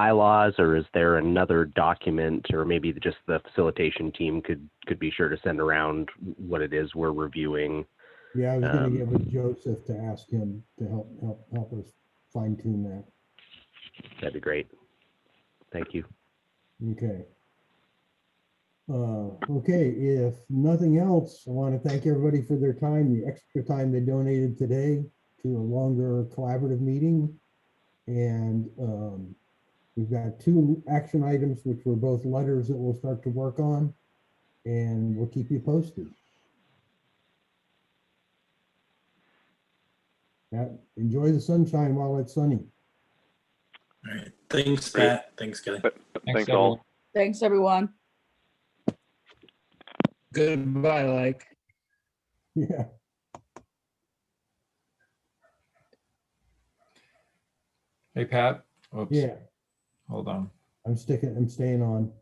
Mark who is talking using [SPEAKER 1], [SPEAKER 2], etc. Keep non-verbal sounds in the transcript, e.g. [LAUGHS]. [SPEAKER 1] bylaws, or is there another document, or maybe just the facilitation team could, could be sure to send around what it is we're reviewing?
[SPEAKER 2] Yeah, I was gonna
[SPEAKER 1] Um,
[SPEAKER 2] give it to Joseph to ask him to help, help, help us fine tune that.
[SPEAKER 1] That'd be great. Thank you.
[SPEAKER 2] Okay. Uh, okay, if nothing else, I want to thank everybody for their time, the extra time they donated today to a longer collaborative meeting. And, um, we've got two action items, which were both letters that we'll start to work on. And we'll keep you posted. Yeah, enjoy the sunshine while it's sunny. [LAUGHS]
[SPEAKER 3] All right. Thanks,
[SPEAKER 4] Great.
[SPEAKER 3] Pat. Thanks, Kelly.
[SPEAKER 4] Thanks all.
[SPEAKER 5] Thanks, everyone.
[SPEAKER 6] Goodbye, like.
[SPEAKER 2] Yeah.
[SPEAKER 7] Hey, Pat. Oops.
[SPEAKER 2] Yeah,
[SPEAKER 7] Hold on.
[SPEAKER 2] I'm sticking, I'm staying on.